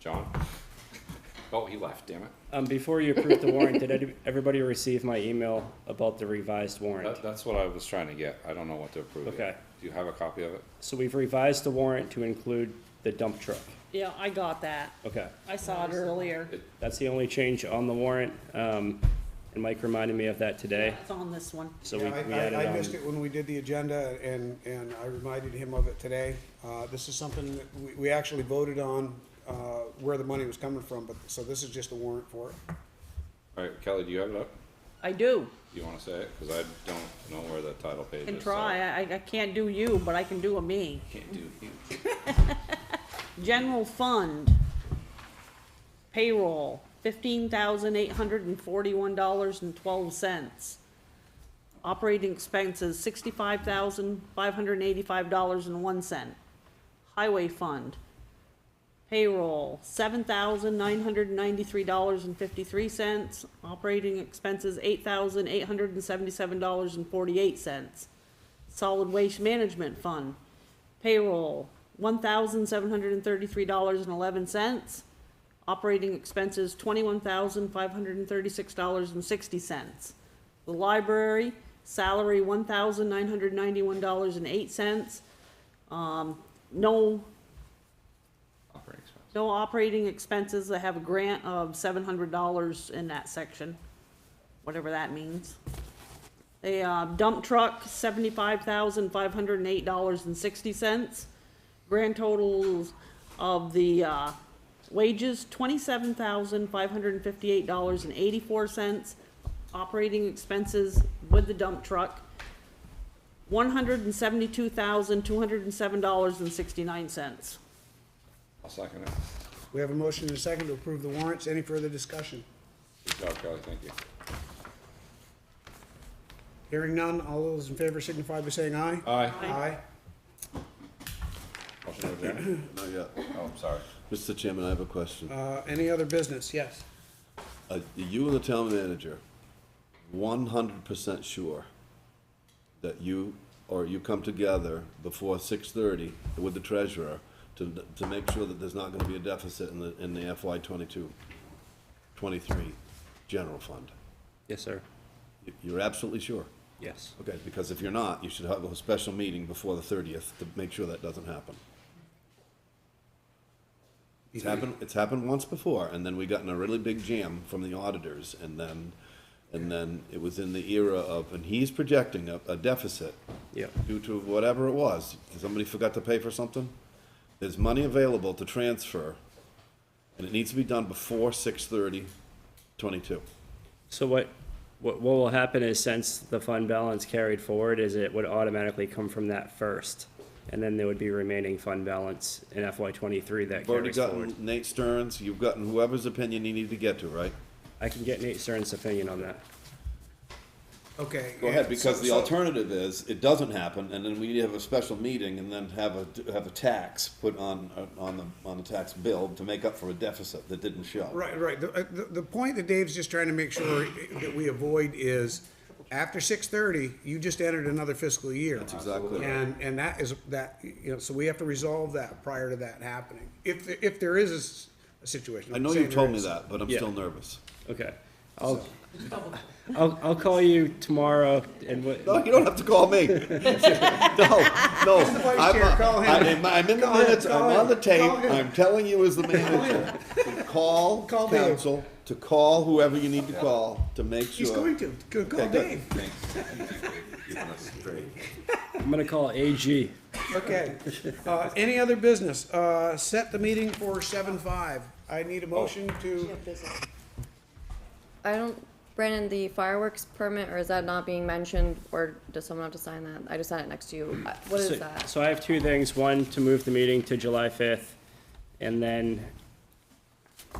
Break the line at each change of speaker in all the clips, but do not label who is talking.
John? Oh, he left, damn it.
Um, before you approve the warrant, did any- everybody receive my email about the revised warrant?
That, that's what I was trying to get. I don't know what to approve yet.
Okay.
Do you have a copy of it?
So we've revised the warrant to include the dump truck.
Yeah, I got that.
Okay,
I saw it earlier.
that's the only change on the warrant, um, and Mike reminded me of that today,
It's on this one.
so we,
Yeah,
we added
I, I, I missed
on.
it when we did the agenda and, and I reminded him of it today. Uh, this is something that we, we actually voted on, uh, where the money was coming from, but, so this is just a warrant for it.
All right, Kelly, do you have it up?
I do.
You wanna say it? Cause I don't know where the title page is.
Can
so
try. I, I- I can't do you, but I can do a me.
Can't do you.
General fund. Payroll, fifteen thousand eight hundred and forty-one dollars and twelve cents. Operating expenses, sixty-five thousand five hundred and eighty-five dollars and one cent. Highway fund. Payroll, seven thousand nine hundred and ninety-three dollars and fifty-three cents. Operating expenses, eight thousand eight hundred and seventy-seven dollars and forty-eight cents. Solid Waste Management Fund. Payroll, one thousand seven hundred and thirty-three dollars and eleven cents. Operating expenses, twenty-one thousand five hundred and thirty-six dollars and sixty cents. The library, salary, one thousand nine hundred ninety-one dollars and eight cents. Um, no,
Operating expense.
no operating expenses. I have a grant of seven hundred dollars in that section, whatever that means. A uh, dump truck, seventy-five thousand, five hundred and eight dollars and sixty cents. Grand totals of the, uh, wages, twenty-seven thousand, five hundred and fifty-eight dollars and eighty-four cents. Operating expenses with the dump truck, one hundred and seventy-two thousand, two hundred and seven dollars and sixty-nine cents.
I'll second it.
We have a motion and a second to approve the warrants. Any further discussion?
Good job, Kelly, thank you.
Hearing none, all those in favor signify by saying aye.
Aye.
Aye.
Motion to adjourn?
Not yet.
Oh, I'm sorry.
Mr. Chairman, I have a question.
Uh, any other business? Yes.
Are you and the town manager one hundred percent sure that you, or you come together before six thirty with the treasurer to, to make sure that there's not gonna be a deficit in the, in the FY 22, 23 general fund?
Yes, sir,
You- You're absolutely sure?
yes.
Okay, because if you're not, you should have a special meeting before the thirtieth to make sure that doesn't happen. It's happened, it's happened once before, and then we got in a really big jam from the auditors, and then, and then it was in the era of, and he's projecting a, a deficit
Yep,
due to whatever it was, somebody forgot to pay for something. There's money available to transfer, and it needs to be done before six thirty, twenty-two.
so what, what, what will happen is since the fund balance carried forward is it would automatically come from that first. And then there would be remaining fund balance in FY twenty-three that
You've already
carries forward.
gotten Nate Stearns, you've gotten whoever's opinion you need to get to, right?
I can get Nate Stern's opinion on that.
Okay.
Go ahead,
So-
because the
so-
alternative is it doesn't happen, and then we need to have a special meeting, and then have a have a tax put on uh, on the on the tax bill to make up for a deficit that didn't show.
Right, right. The, uh, the, the point that Dave's just trying to make sure that we avoid is after six thirty, you just entered another fiscal year. That's
exactly right.
And, and that is, that, you know, so we have to resolve that prior to that happening. If, the- if there is a s- a situation.
I
I'm
know
saying
you told
there
me
is.
that, but I'm
Yeah.
still nervous.
Okay, I'll, I'll, I'll call you tomorrow and
No,
what,
you don't have to call me. no, no,
vice
I'm,
chair, call
I,
him.
am I'm in the
Call him,
minutes.
call
I'm on the
him,
tape.
call him.
I'm telling you as the manager to call,
Call Dave.
council to call whoever you need to call to make sure.
He's going to, go call
Okay, good.
Dave.
I'm gonna call AG.
Okay. Uh, any other business? Uh, set the meeting for seven five. I need a motion to,
I don't, Brandon, the fireworks permit, or is that not being mentioned, or does someone have to sign that? I just had it next to you. Uh, What
So-
is that?
So I have two things, one, to move the meeting to July fifth, and then,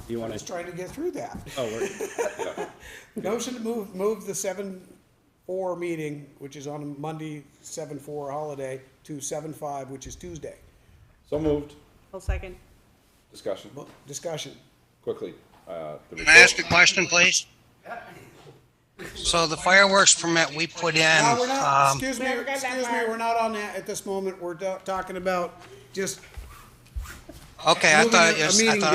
you
I
wanna,
was trying to get through that.
oh, we're,
Motion to move, move the seven four meeting, which is on Monday, seven four holiday, to seven five, which is Tuesday.
So moved.
I'll second.
Discussion,
Mo- Discussion.
quickly. Uh, the
Can I ask a
report-
question, please? So the fireworks permit we put in,
No, Uh, we're not,
um,
excuse me, excuse me, we're not on that at this moment. We're ta- talking about just
okay, I
Moving
thought,
a-
it
a
was- I
meeting
thought